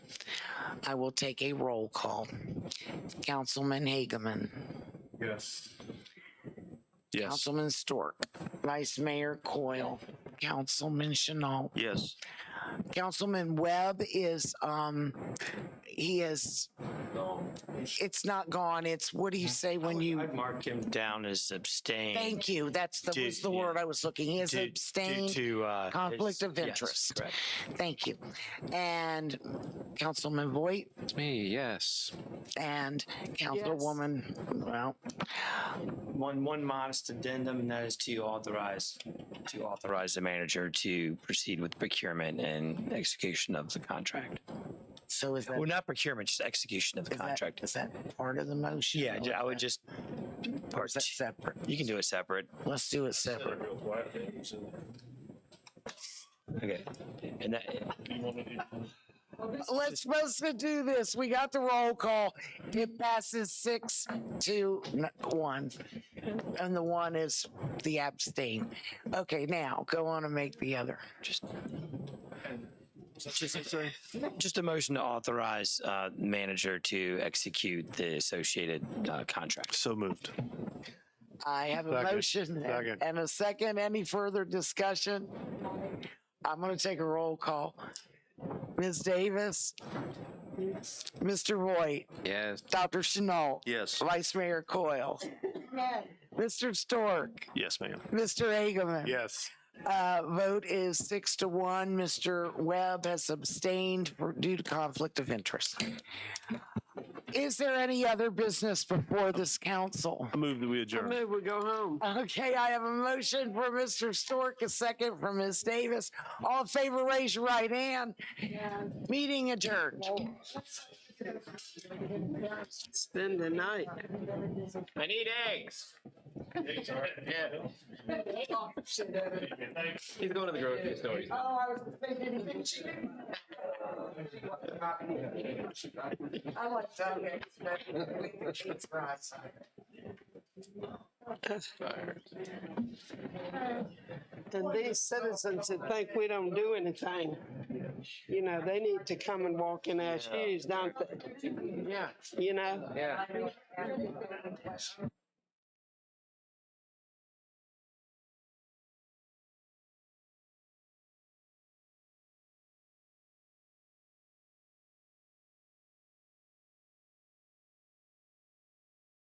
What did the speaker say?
I will take a roll call. Councilman Hageman. Yes. Yes. Councilman Stork. Vice Mayor Coyle. Councilman Chanel. Yes. Councilman Webb is, um, he is, it's not gone. It's, what do you say when Um, I you, mark him down as abstain. thank you, that's the, was the word I was looking. He is Due- due abstained. to, uh, conflict of yes, interest. correct. Thank you. And Councilman Voight It's me, yes. and Councilwoman, well, One, one modest addendum, and that is to authorize, to authorize the manager to proceed with procurement and execution of the contract. so is that, Well, not procurement, just execution of the is that, contract. is that part of the motion? Yeah, I would just, Or is that separate? you can do it separate. Let's do it separate. Okay. And that, Let's supposed to do this. We got the roll call. It passes six to n- one. And the one is the abstain. Okay, now go on and make the other. just. Just a motion to authorize uh, manager to execute the associated uh, contract. So moved. I have a Second. motion Second. and a second. Any further discussion? I'm going to take a roll call. Ms. Davis? Mr. Voight? Yes. Dr. Chanel? Yes. Vice Mayor Coyle? Mr. Stork? Yes, ma'am. Mr. Hageman? Yes. Uh, vote is six to one. Mr. Webb has abstained for- due to conflict of interest. Is there any other business before this council? I move that we adjourn. Maybe we go home. Okay, I have a motion for Mr. Stork, a second from Ms. Davis. All in favor, raise your right hand. Meeting adjourned. Spend the night. I need eggs. He's going to the grocery store. He's I like that. And these citizens that think we don't do anything, you know, they need to come and walk in our shoes, don't they? Yeah. You know? Yeah.